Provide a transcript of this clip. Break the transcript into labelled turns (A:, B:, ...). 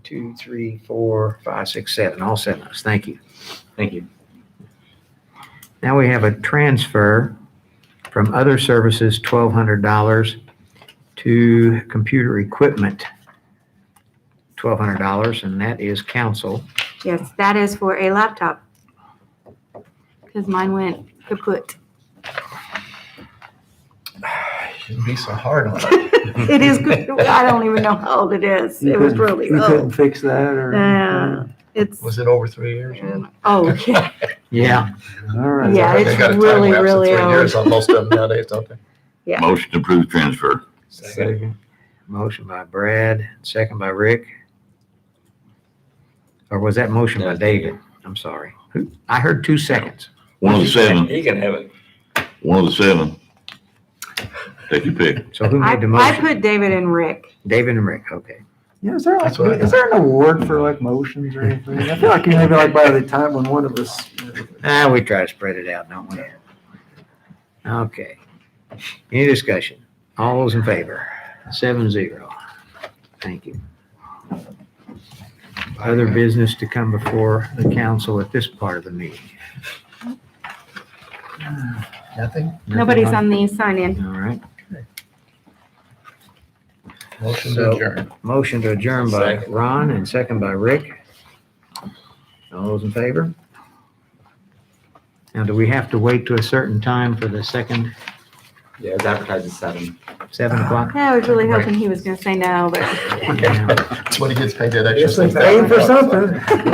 A: two, three, four, five, six, seven, all seven of us. Thank you.
B: Thank you.
A: Now we have a transfer from other services, twelve hundred dollars, to computer equipment, twelve hundred dollars, and that is council.
C: Yes, that is for a laptop. Because mine went kaput.
D: Shouldn't be so hard on it.
C: It is, good. I don't even know how old it is.
E: You
C: It was
E: couldn't-
C: really
E: You couldn't
C: old.
E: fix that or?
C: Yeah, it's,
D: Was it over three years?
C: oh, yeah,
A: Yeah,
E: All right.
C: Yeah, it's
D: They got a time
C: really,
D: lapse of
C: really
D: Three years
C: old.
D: on most of them nowadays, don't they?
F: Motion to approve transfer.
D: Second.
A: motion by Brad, second by Rick. Or was that motion by
B: That's David.
A: David? I'm sorry. Who- I heard two seconds.
F: One of the seven,
B: You can have it.
F: one of the seven. Take your pick.
A: So who
C: I,
A: made the
C: I
A: motion?
C: put David and Rick.
A: David and Rick, okay.
E: Yeah, is there like,
D: That's what I
E: is there an award for like motions or anything? I feel like maybe like by the time when one of us,
A: Ah, we try to spread it out, don't we? Okay. Any discussion? All those in favor? Seven zero. Thank you. Other business to come before the council at this part of the meeting?
D: Nothing?
C: Nobody's on the sign-in.
A: All right.
D: Motion
A: So-
D: to adjourn.
A: Motion to adjourn by
B: Second.
A: Ron and second by Rick. All those in favor? Now, do we have to wait to a certain time for the second,
B: Yeah, it's advertised at seven.
A: seven o'clock?
C: I was really hoping he was gonna say no, but
D: That's what he gets paid that
E: Yes,
D: extra.
E: they paid for something.